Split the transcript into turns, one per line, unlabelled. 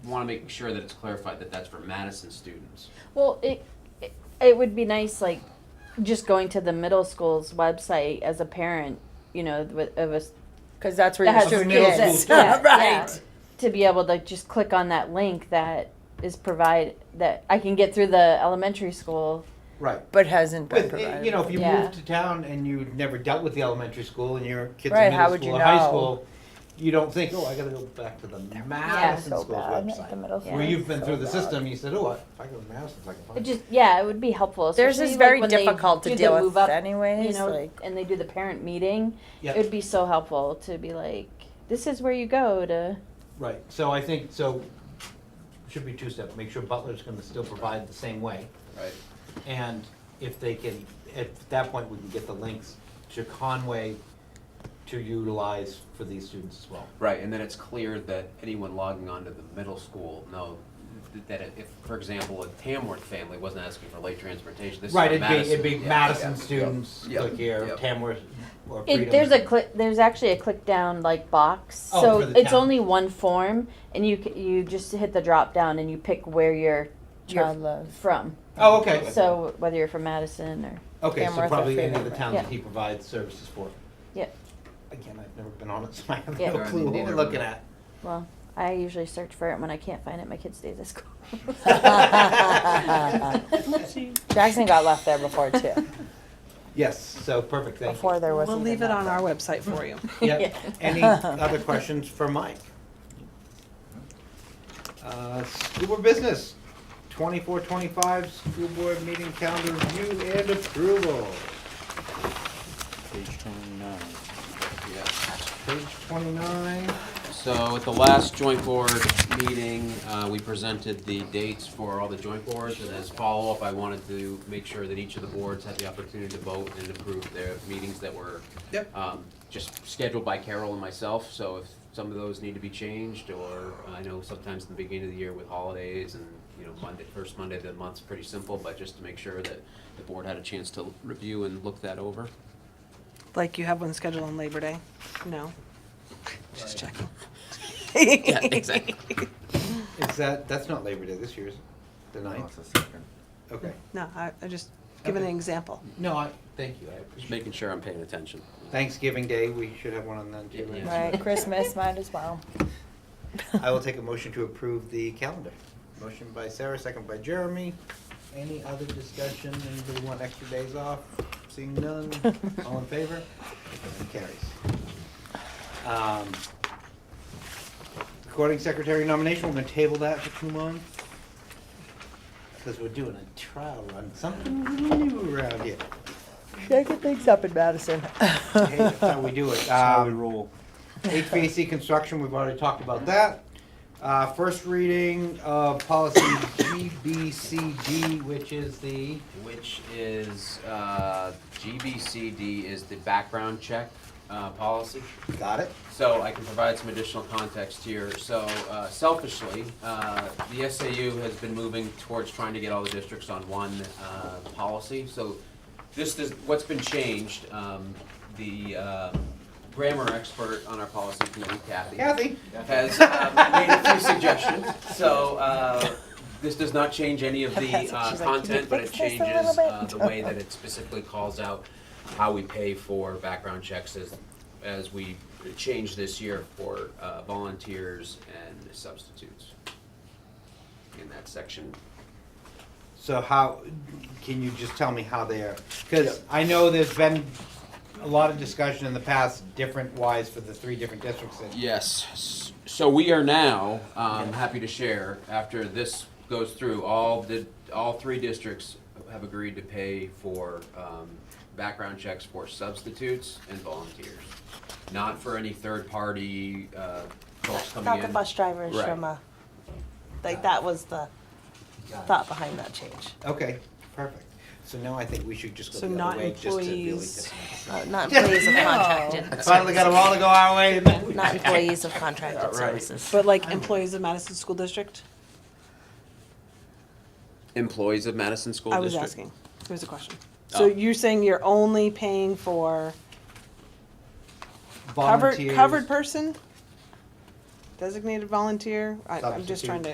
want to make sure that it's clarified that that's for Madison students.
Well, it, it it would be nice, like just going to the middle school's website as a parent, you know, with of a
Because that's where
That
your
has
student
middle school
is.
students. Yeah, yeah.
right.
to be able to just click on that link that is provide that I can get through the elementary school.
Right.
But uh, hasn't been
But,
provided.
eh, you know, if you
Yeah.
move to town and you've never dealt with the elementary school and your kids
Right,
in
how
middle
would
school
you
or high
know?
school, you don't think, oh, I gotta go back to the Madison
so
School's
bad. The
website.
middle
Yeah.
Where
school
you've
is
been
so
through the
bad.
system, you said, oh, I- if I go to Madison's, I can
It
find it.
just yeah, it would be helpful.
Theirs
especially,
is
like,
very
when they
difficult to
do the
deal
move
with
up, you
anyways,
know,
like.
and they do the parent meeting.
Yeah.
It would be so helpful to be like, this is where you go to.
Right, so I think, so, should be two-step, make sure Butler's gonna still provide the same way.
Right.
And if they can, at that point, we can get the links to Conway to utilize for these students as well.
Right, and then it's clear that anyone logging on to the middle school know that if, for example, a Tamworth family wasn't asking for late transportation, this is
Right,
for
it'd be, it'd be
Yeah,
Madison
yeah.
students,
Yep,
click here,
yep.
Tamworth or Freedom.
It, there's a click. There's actually a click down like box,
Oh,
so
for the
it's
town.
only one form, and you c- you just hit the drop down and you pick where you're uh,
Child love.
from.
Oh, okay.
So whether you're from Madison or
Okay, so
Tamworth or
probably any of
Freedom,
the
right.
towns that
Yeah.
he provides services for.
yeah,
Again, I've never been on it, so I have
Yeah.
no
Darn,
clue what
neither
we're
am
looking
I.
at.
well, I usually search for it when I can't find it. My kids stays at school.
Jackson got left there before too.
Yes, so perfect, thank you.
Before there was
We'll
even
leave it
that.
on our website for you.
Yep. Any other questions for Mike? Uh, School board business, twenty-four, twenty-five, school board meeting calendar review and approval.
Page twenty-nine.
Yeah.
Page twenty-nine.
So at the last joint board meeting, uh, we presented the dates for all the joint boards, and as follow-up, I wanted to make sure that each of the boards had the opportunity to vote and approve their meetings that were
Yep.
um, just scheduled by Carol and myself, so if some of those need to be changed, or uh, I know sometimes in the beginning of the year with holidays and, you know, Monday, first Monday of the month's pretty simple, but just to make sure that the board had a chance to review and look that over.
Like you have one scheduled on Labor Day? No? Just checking.
Yeah, exactly.
Is that, that's not Labor Day this year, is it? The ninth? Okay.
No, I, I just giving an
Okay.
example.
No, I, thank you, I
Just
appreciate it.
making sure I'm paying attention.
Thanksgiving Day, we should have one on then too.
Yeah.
Right, Christmas, might as well.
I will take a motion to approve the calendar. Motion by Sarah, second by Jeremy. Any other discussion? Anybody want extra days off? Seeing none, all in favor? Motion Carries. Um, Recording secretary nomination, we're gonna table that for two months. Because we're doing a trial run, something new around here.
Shaking things up in Madison.
Hey, that's how we do it.
How we
Um,
roll.
HVAC construction, we've already talked about that. Uh, first reading of policy GBCD, which is the,
which is uh, GBCD is the background check uh, policy.
got it?
So I can provide some additional context here. So uh, selfishly, uh, the SAU has been moving towards trying to get all the districts on one uh, policy. So this is, what's been changed, um, the uh, grammar expert on our policy committee, Kathy
Kathy?
has uh, made a few suggestions. So uh, this does not change any of the
That's what
uh,
she's like, "Can you
content, but it
fix this a little
changes uh,
bit?"
the way that it specifically calls out how we pay for background checks as, as we change this year for uh, volunteers and substitutes in that section.
So how, can you just tell me how they're, because I know there's been a lot of discussion in the past, different wise for the three different districts. that-
Yes. S- So we are now, um, happy to share, after this goes through, all the, all three districts have agreed to pay for, um, background checks for substitutes and volunteers. Not for any third-party, uh, folks coming in.
Not the bus drivers
Right.
from, uh, like, that was the thought behind that change.
Okay, perfect. So now I think we should just go
So
the
not
other way, just to really.
employees.
dis-
Uh, Not employees of contracted.
Finally got a while to go our way.
Not employees of contracted services. But like employees of Madison School District?
Employees of Madison School
I
District.
was asking. It was a question.
Oh.
So you're saying you're only paying for covered,
Volunteers.
covered person? Designated volunteer? I, I'm just
Substitute.
trying to